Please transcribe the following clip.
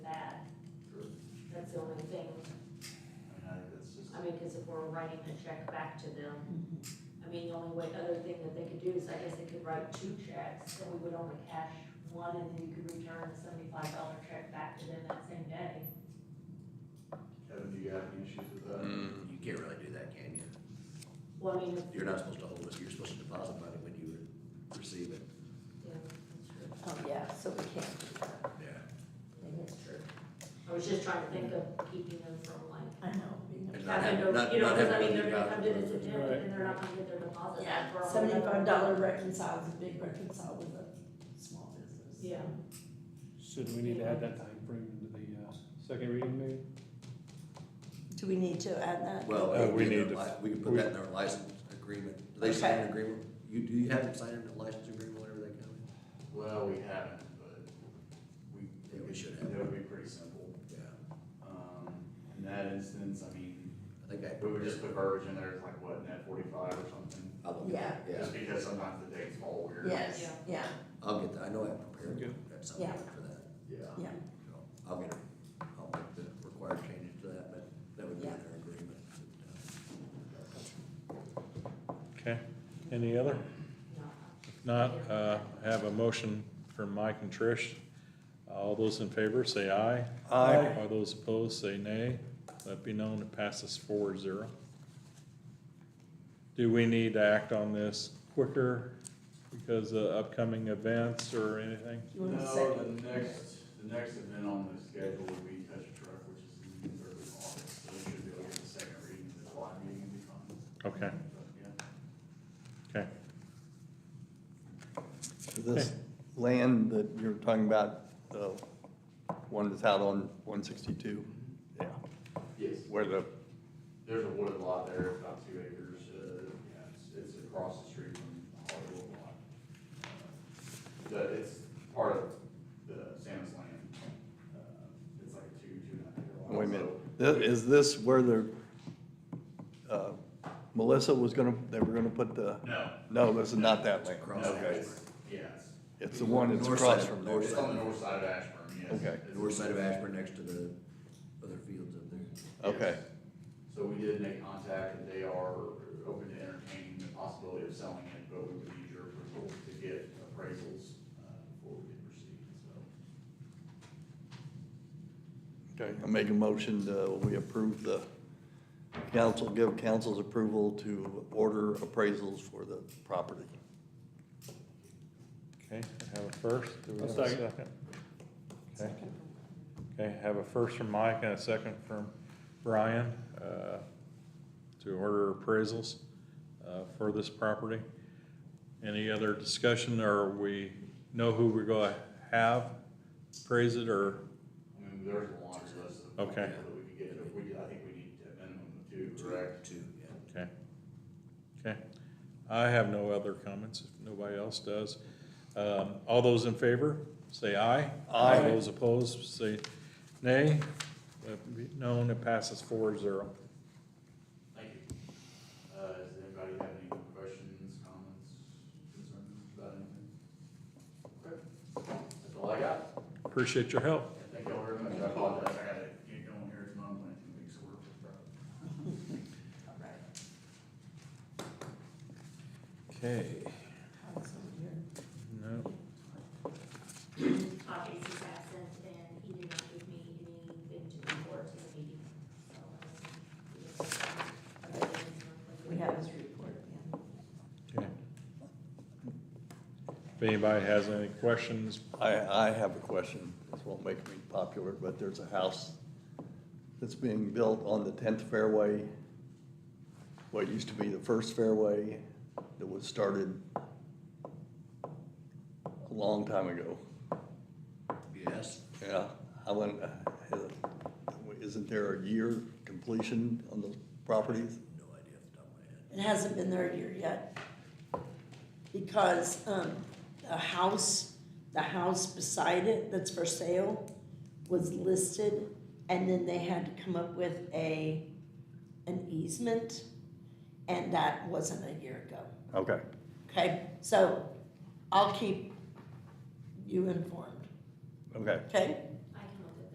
that's the only thing, I mean, I think that's just, I mean, cause if we're writing a check back to them, I mean, the only way, other thing that they could do is, I guess they could write two checks, and we would only cash one, and then you could return the seventy-five dollar check back to them that same day. Kevin, do you have any issues with that? Mm, You can't really do that, can you? Well, I mean, if, You're not supposed to hold it, you're supposed to deposit money when you receive it. yeah, that's true, Oh, yeah, so we can't do that. Yeah. I think that's true. I was just trying to think of keeping them from like, I know. we know. And not having to, having, not, you know, not cause I mean, having to they're do gonna come to this that. attempt, and they're not gonna get their deposit back for all. the- Seventy-five dollar reconciles a big reconcile with a small business. Yeah, So do we need to add that time frame into the uh, second reading maybe? Do we need to add that? Well, Uh, we we can, need do to- their li- we can put that in their license agreement. Do they sign an agreement? You, do you have them sign a license agreement whenever they come in? Well, we haven't, but we. Yeah, we should have. That would be pretty simple. Yeah. Um, in that instance, I mean, I think I. we would just put verbiage in there, it's like what, net forty-five or something? I'll look at it, Yeah, Just because sometimes the dates fall weird. Yes, Yeah. yeah, I'll get that, I know I have prepared, Okay. that's something Yeah. for that. Yeah. yeah. So I'll get, a- I'll make the required changes to that, but that would be in Yeah. their agreement. Okay, any other? no, If not, uh, I have a motion from Mike and Trish. All those in favor, say aye. Aye. All those opposed, say nay. Let be known, it passes four zero. Do we need to act on this quicker because of upcoming events or anything? You want to No, second? the next, the next event on the schedule would be touch a truck, which is in the third of August, so it should be able to get the second reading, the July meeting would be fine. Okay, But, yeah. okay. This land that you're talking about, the one that's out on one sixty-two, yeah, Yes, where the, there's a wooded lot there, about two acres, uh, yeah, it's, it's across the street from Hollywood Lot. The, it's part of the Sam's land, uh, it's like a two, two and a half acre lot. wait a minute, so- Thi- is this where the, uh, Melissa was gonna, they were gonna put the? No, No, this is not that land. Across no, Ashburn. it's, yeah, it's, It's the one that's North side across of- from there. north it's on the north side of Ashburn, yes. Okay. It's- North side of Ashburn, next to the other fields up there. Okay, Yes. So we did make contact, and they are open to entertaining the possibility of selling it, but we would need your approval to get appraisals, uh, before we can proceed, so. okay, I make a motion, uh, we approve the council, give council's approval to order appraisals for the property. Okay, I have a first. Do we I'll have a second. second? Okay. Okay, I have a first from Mike and a second from Brian, uh, to order appraisals, uh, for this property. Any other discussion, or we know who we're gonna have appraise it, or, I mean, there's a laundry list of. Okay. people That we could get, but we, I think we need a minimum of two, correct? Two, yeah. okay. Okay, I have no other comments, if nobody else does. Um, all those in favor, say aye. Aye. All those opposed, say nay. Let it be Known, it passes four zero. Thank you. Uh, does anybody have any questions, comments, concerns about anything? Okay, that's all I got. Appreciate your help. Yeah, Thank y'all very much. I apologize. I gotta get going here. It's my plan two weeks, so we're. All right. Okay. Oh, it's over here. No, Uh, Obviously, he's absent, and he did not give me anything to report to the meeting, so. um, yes. We have his report, yeah. okay. If anybody has any questions, I, I have a question. This won't make me popular, but there's a house that's being built on the tenth fairway. What used to be the first fairway that was started a long time ago. Yes, Yeah, I went, uh, isn't there a year completion on those properties? no idea off the top of my head. It hasn't been there a year yet. Because, um, the house, the house beside it that's for sale was listed, and then they had to come up with a, an easement, and that wasn't a year ago. Okay. Okay, so I'll keep you informed, Okay, okay?